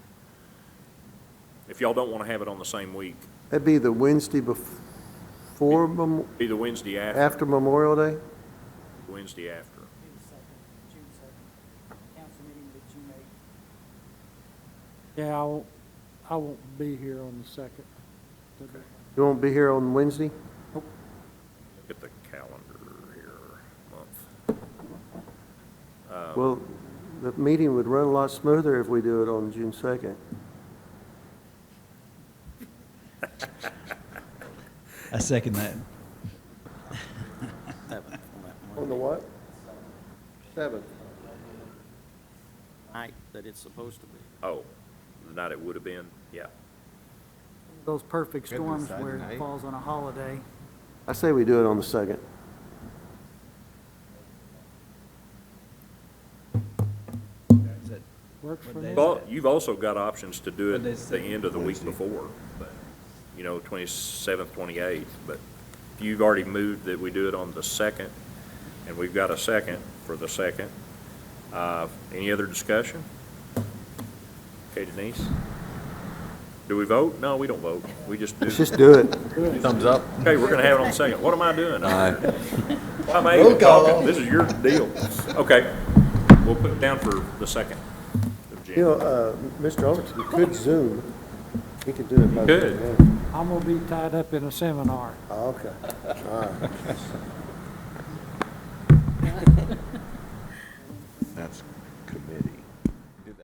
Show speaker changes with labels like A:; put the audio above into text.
A: if y'all don't want to have it on the same week,
B: That'd be the Wednesday before, Mem-
A: be the Wednesday after,
B: after Memorial Day?
A: Wednesday after.
C: June second, June second, council meeting with June eighth.
D: Yeah, I won't, I won't be here on the second.
B: You won't be here on Wednesday?
A: Look at the calendar here, month. Uh,
B: Well, the meeting would run a lot smoother if we do it on June 2nd.
E: I second that.
B: On the what? 7th.
F: night that it's supposed to be.
A: Oh, the night it would have been, yeah.
C: Those perfect storms where
G: Saturday.
C: it falls on a holiday.
B: I say we do it on the 2nd.
E: Is that-
D: Works for
E: What
D: me.
E: day?
A: Well, you've also got options to do it
E: But it's
A: the
E: the
A: end of the week before, but, you know, twenty-seventh, twenty-eighth, but if you've already moved that we do it on the second, and we've got a second for the second. Uh, any other discussion? Okay, Denise? Do we vote? No, we don't vote. We just do.
B: Let's just do it.
G: Thumbs up.
A: Okay, we're gonna have it on the second. What am I doing? I'm even talking. This is your deal. Okay, we'll put it down for the second of
B: You know,
A: January.
B: uh, Mr. Overton could Zoom. He could do it by.
A: Could.
B: Zoom,
D: I'm gonna be tied up in a seminar.
B: yeah. Oh, Okay.
G: That's